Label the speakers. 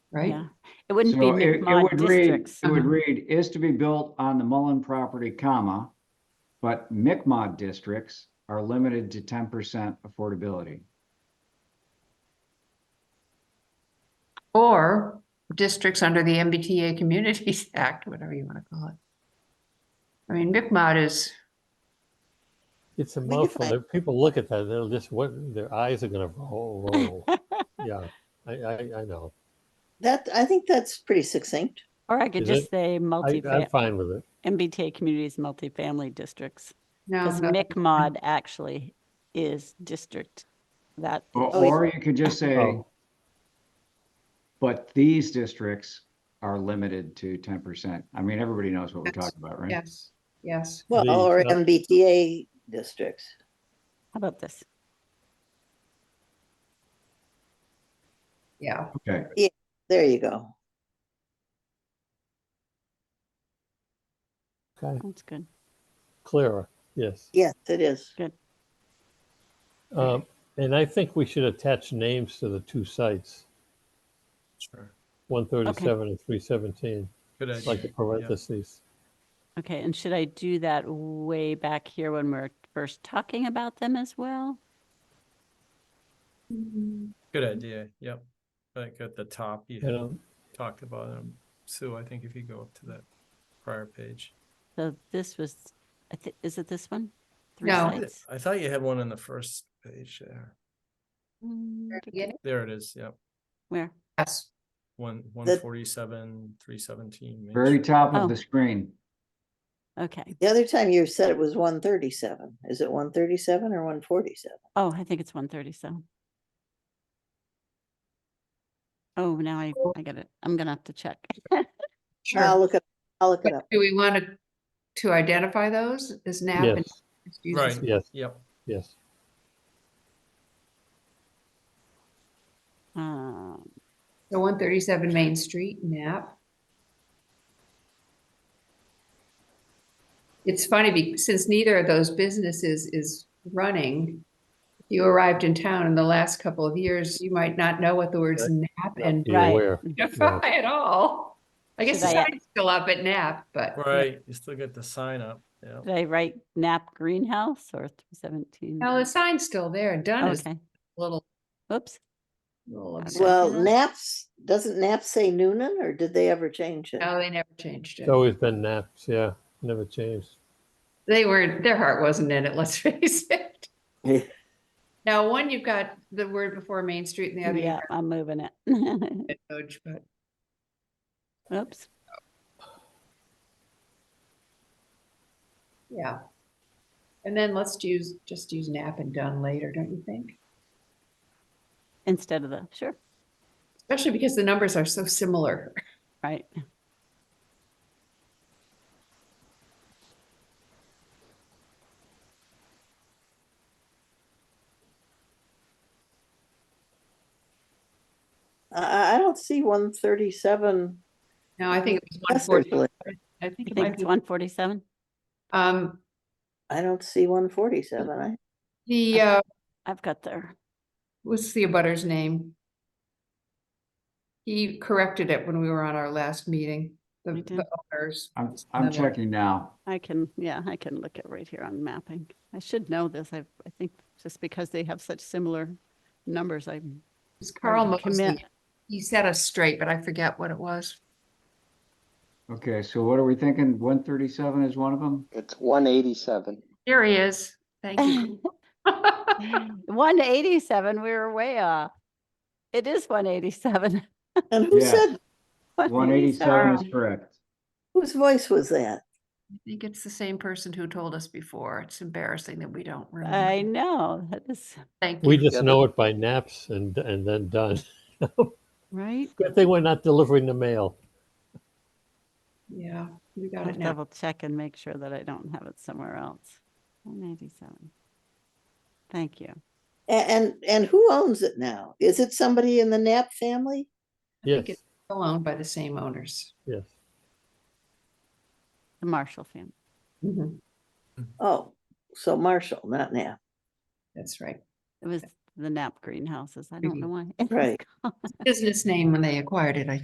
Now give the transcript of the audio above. Speaker 1: right?
Speaker 2: Yeah. It wouldn't be
Speaker 3: So it- it
Speaker 2: Mi'kmaq
Speaker 3: would read-
Speaker 2: districts.
Speaker 3: It would
Speaker 1: Uh-huh.
Speaker 3: read, is to be built on the Mullen property, comma, but Mi'kmaq districts are limited to ten percent affordability.
Speaker 1: Or districts under the MBTA Communities Act, whatever you want to call it. I mean, Mi'kmaq is,
Speaker 4: It's a
Speaker 5: We could
Speaker 4: mouthful.
Speaker 5: find-
Speaker 4: If People look at that, they'll just, what, their eyes are gonna roll. roll. Yeah, I, I, I know.
Speaker 5: That, I think that's pretty succinct.
Speaker 2: Or I could
Speaker 4: Is
Speaker 2: just
Speaker 4: it?
Speaker 2: say
Speaker 4: I,
Speaker 2: multi,
Speaker 4: I'm fine with it.
Speaker 2: MBTA communities, multifamily districts.
Speaker 1: no,
Speaker 2: Because
Speaker 1: no,
Speaker 2: MICMOD actually is district that.
Speaker 3: Or
Speaker 5: Oh, yeah.
Speaker 3: or you could just say,
Speaker 4: Oh.
Speaker 3: but these districts are limited to ten percent. I mean, everybody knows what we're
Speaker 1: Yes.
Speaker 3: talking about, right?
Speaker 1: yes, yes.
Speaker 5: Well,
Speaker 4: The-
Speaker 5: or
Speaker 4: uh,
Speaker 5: MBTA districts.
Speaker 2: How about this?
Speaker 1: Yeah,
Speaker 3: Okay,
Speaker 5: There you go.
Speaker 4: Okay,
Speaker 2: That's good.
Speaker 4: Clara, yes.
Speaker 5: Yes, it is.
Speaker 4: Um, and I think we should attach names to the two sites,
Speaker 6: Sure.
Speaker 4: one thirty-seven and three seventeen,
Speaker 6: Good idea.
Speaker 4: like the
Speaker 6: Yeah.
Speaker 4: parentheses.
Speaker 2: Okay, and should I do that way back here when we're first talking about them as well?
Speaker 6: Good idea. Yep. Like at the top, you
Speaker 4: You
Speaker 6: had
Speaker 4: know,
Speaker 6: talked about them. Sue, I think if you go up to that prior page.
Speaker 2: So this was, I thi- is it this one? Three
Speaker 1: No.
Speaker 6: I
Speaker 2: sites?
Speaker 6: I thought you had one on the first page there.
Speaker 2: Mm,
Speaker 1: Very
Speaker 2: tick, tick.
Speaker 1: beginning?
Speaker 6: There it is. Yep.
Speaker 2: Where?
Speaker 1: yes,
Speaker 6: One, one forty-seven, three seventeen.
Speaker 3: very top
Speaker 2: Oh.
Speaker 3: of the screen.
Speaker 2: Okay.
Speaker 5: The other time you said it was one thirty-seven. Is it one thirty-seven or one forty-seven?
Speaker 2: Oh, I think it's one thirty-seven. Oh, now I, I get it. I'm gonna have to check.
Speaker 5: I'll
Speaker 1: sure.
Speaker 5: look it, I'll look it
Speaker 1: But
Speaker 5: up.
Speaker 1: Do we want to, to identify those as NAP? and
Speaker 4: yes,
Speaker 1: just use
Speaker 6: Right.
Speaker 1: this-
Speaker 4: yes,
Speaker 6: Yep.
Speaker 4: yes.
Speaker 2: Um,
Speaker 1: So one thirty-seven Main Street, NAP. It's funny, be- since neither of those businesses is running, if you arrived in town in the last couple of years, you might not know what the words NAP and
Speaker 4: Be
Speaker 2: Right.
Speaker 4: aware.
Speaker 1: identify at all. I guess the
Speaker 2: Should I-
Speaker 1: sign's still up at NAP, but
Speaker 6: Right. You still get the sign up. Yeah.
Speaker 2: Did I write Knapp Greenhouse or three seventeen?
Speaker 1: no, the sign's still there. Dunn is a
Speaker 2: Okay,
Speaker 1: little,
Speaker 2: whoops.
Speaker 1: little upset.
Speaker 5: Well,
Speaker 2: Mhm.
Speaker 5: Naps, doesn't Nap say Noonan or did they ever change it?
Speaker 1: No, they never changed it.
Speaker 4: It's always been naps, yeah, never changed.
Speaker 1: They were, their heart wasn't in it, let's face it. Now, one, you've got the word before Main Street and the other, you've
Speaker 2: Yeah, I'm moving it.
Speaker 1: got Doge, but.
Speaker 2: Oops.
Speaker 1: Yeah. And then let's use, just use nap and done later, don't you think?
Speaker 2: Instead of the, sure,
Speaker 1: Especially because the numbers are so similar.
Speaker 2: right.
Speaker 5: I, I- I don't see one thirty-seven.
Speaker 1: No, I think it was one forty.
Speaker 5: I
Speaker 1: I think it
Speaker 2: You think
Speaker 1: might
Speaker 2: it's
Speaker 1: be,
Speaker 2: one forty-seven?
Speaker 1: um,
Speaker 5: don't see one forty-seven. I,
Speaker 1: the, uh,
Speaker 2: I've got there.
Speaker 1: what's the abutter's name? He corrected it when we were on our last meeting, the
Speaker 2: We did.
Speaker 1: the owners.
Speaker 3: I'm, I'm
Speaker 1: Level.
Speaker 3: checking now.
Speaker 2: I can, yeah, I can look at right here on mapping. I should know this. I, I think just because they have such similar numbers, I.
Speaker 1: It was
Speaker 2: I would
Speaker 1: Carl Mosley.
Speaker 2: commit-
Speaker 1: He set us straight, but I forget what it was.
Speaker 3: Okay, so what are we thinking? One thirty-seven is one of them?
Speaker 7: It's one eighty-seven.
Speaker 1: Here he is. Thank you.
Speaker 2: One eighty-seven, we were way off. It is one eighty-seven.
Speaker 5: and who
Speaker 3: Yeah.
Speaker 5: said,
Speaker 3: One eighty-seven is
Speaker 1: Sorry.
Speaker 3: correct.
Speaker 5: whose voice was that?
Speaker 1: I think it's the same person who told us before. It's embarrassing that we don't
Speaker 2: I
Speaker 1: remember.
Speaker 2: know, that is,
Speaker 1: Thank
Speaker 4: We
Speaker 1: you.
Speaker 4: just know it by naps and, and then done.
Speaker 2: right?
Speaker 4: Good thing we're not delivering the mail.
Speaker 1: Yeah, we got
Speaker 2: I'll
Speaker 1: it now.
Speaker 2: double check and make sure that I don't have it somewhere else. One eighty-seven. Thank you.
Speaker 5: A- And, and who owns it now? Is it somebody in the Nap family?
Speaker 4: Yes,
Speaker 1: it's- Still owned by the same owners.
Speaker 4: yes.
Speaker 2: The Marshall family.
Speaker 1: Mm-hmm.
Speaker 5: Oh, so Marshall, not Nap.
Speaker 1: That's right.
Speaker 2: It was the Knapp greenhouses. I don't know why. it was
Speaker 5: Right.
Speaker 2: called-
Speaker 1: Business name when they acquired it, I